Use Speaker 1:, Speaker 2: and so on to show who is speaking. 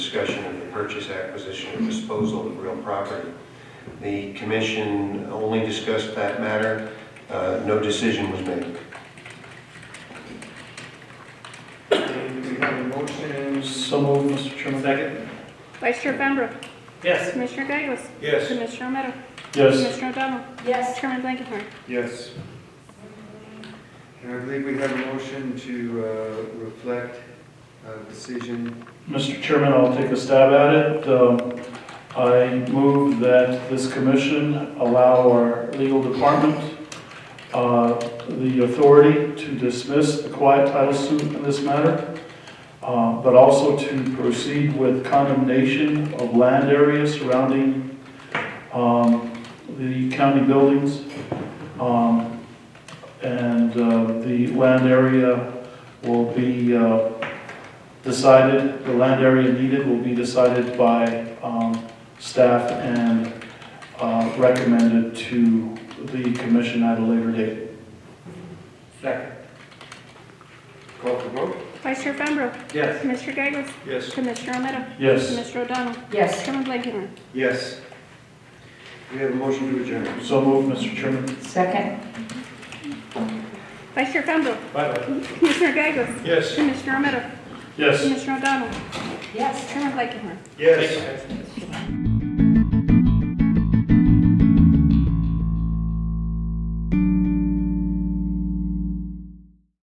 Speaker 1: discussion of the purchase, acquisition, or disposal of real property. The commission only discussed that matter. Uh, No decision was made.
Speaker 2: Do we have a motion?
Speaker 3: So moved, Mr. Chairman.
Speaker 2: Second?
Speaker 4: Vice Chair Fambro.
Speaker 2: Yes.
Speaker 4: Commissioner Gagos.
Speaker 1: Yes.
Speaker 4: Commissioner Romero.
Speaker 3: Yes.
Speaker 4: Commissioner O'Donnell.
Speaker 5: Yes.
Speaker 4: Chairman Blankenhorn.
Speaker 2: Yes. And I believe we have a motion to uh, reflect a decision.
Speaker 3: Mr. Chairman, I'll take a stab at it. Um, I move that this commission allow our legal department uh, the authority to dismiss the quiet title suit in this matter, uh, but also to proceed with condemnation of land areas surrounding um, the county buildings um, and uh, the land area will be uh, decided, the land area needed will be decided by um, staff and uh, recommended to the commission at a later date.
Speaker 2: Second. Call for vote?
Speaker 4: Vice Chair Fambro.
Speaker 2: Yes.
Speaker 4: Commissioner Gagos.
Speaker 2: Yes.
Speaker 4: Commissioner Romero.
Speaker 3: Yes,
Speaker 4: Commissioner O'Donnell.
Speaker 5: Yes.
Speaker 4: Chairman Blankenhorn.
Speaker 2: Yes. We have a motion to adjourn.
Speaker 3: so moved, Mr. Chairman.
Speaker 5: Second?
Speaker 4: Vice Chair Fambro.
Speaker 2: Bye-bye.
Speaker 4: Commissioner Gagos.
Speaker 2: Yes.
Speaker 4: Commissioner Romero.
Speaker 3: Yes.
Speaker 4: Commissioner O'Donnell.
Speaker 5: Yes.
Speaker 4: Chairman Blankenhorn.
Speaker 2: Yes.